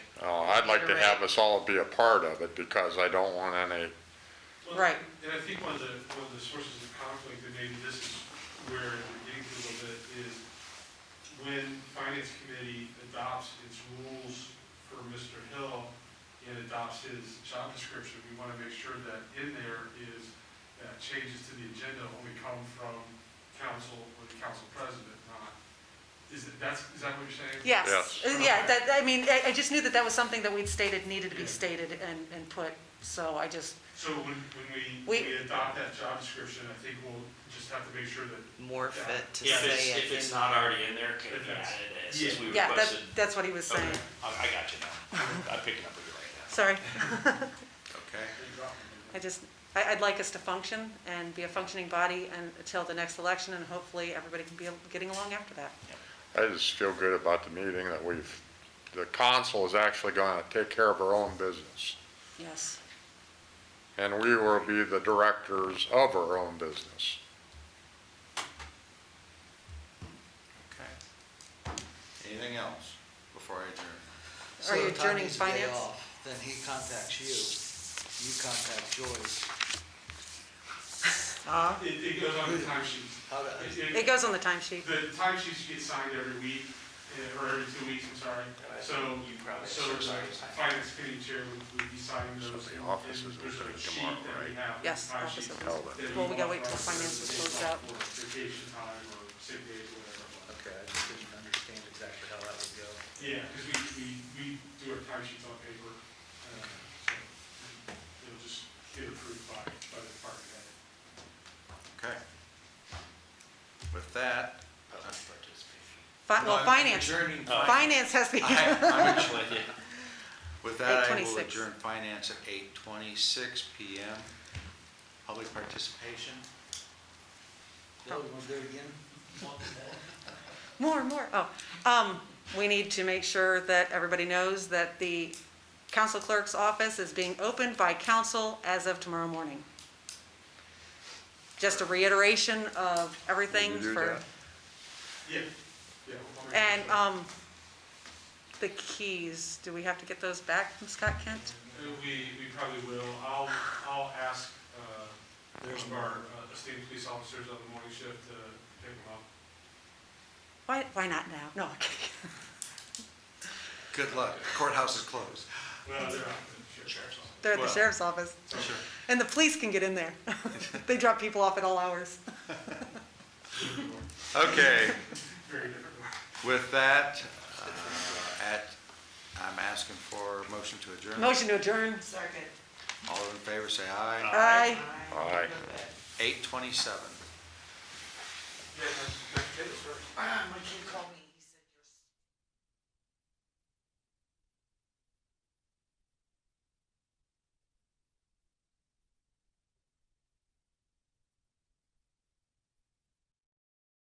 Oh, I'd like to have us all be a part of it because I don't want any, Well, Right. And I think one of the, one of the sources of conflict, and maybe this is where we're getting to a little bit, is when finance committee adopts its rules for Mr. Hill and adopts his job description, we want to make sure that in there is, that changes to the agenda only come from council or the council president, not, is it, that's, is that what you're saying? Yes, Yes. Uh, yeah, that, I mean, I, I just knew that that was something that we'd stated needed to be stated and, and put, so I just, So when, when we, We- we adopt that job description, I think we'll just have to make sure that morph it to Yeah, if it's, say if it. it's in- not already in there, can it be Yeah. added as, since we yeah, that, requested? that's what he was saying. Okay, I, I got you now. I'm picking up what you're writing down. Sorry, okay? I just, I, I'd like us to function and be a functioning body and, until the next election, and hopefully everybody can be getting along after that. I just feel good about the meeting that we've, the council is actually gonna take care of our own business. Yes, And we will be the directors of our own business. Okay. Anything else before I adjourn? So Are you if Tom adjourning needs a day finance? off, Then he contacts you, you contact Joyce. It, it goes on the timesheets. How to- It- it it- goes on the timesheet. The timesheets get signed every week, uh, or every two weeks, I'm sorry. So, You probably so should the sign it. finance committee chair would- would be signing So those. the and- office and is There's open a sheet tomorrow, that we right? have. with Yes, time office sheets is that open. we Well, we authorize gotta wait till us to finance is take closed off out. For vacation time or sick days or whatever. it was. Okay, I just didn't understand exactly how that would go. Yeah, because we, we, we do our timesheets on paper, uh, so it'll just get approved by, by the department head. Okay. With that, Public participation. Fi- No, Well, I'm finance, adjourning Oh. finance. finance has to be, I- I'm adjourning- Well, yeah. With that, I will 8:26. adjourn finance at eight twenty-six PM. Public participation? Bill, you wanna do it again? more, more, oh. Um, we need to make sure that everybody knows that the council clerk's office is being opened by council as of tomorrow morning. Just a reiteration of everything Will you do for, that? Yeah, yeah. I'll make and, sure. um, the keys, do we have to get those back from Scott Kent? Uh, We, we probably will. I'll, I'll ask uh, one of our uh, esteemed police officers on the morning shift to pick them up. Why, why not now? No, I'm kidding. Good luck. Courthouse is closed. Well, they're out, the sheriff's office. they're at the Well- sheriff's office, Sure. and the police can get in there. They drop people off at all hours. Okay, Very different. with that, uh, at, I'm asking for a motion to adjourn. Motion to adjourn. Second. All in favor, say aye. Aye. Aye. Eight twenty-seven. My kid called me.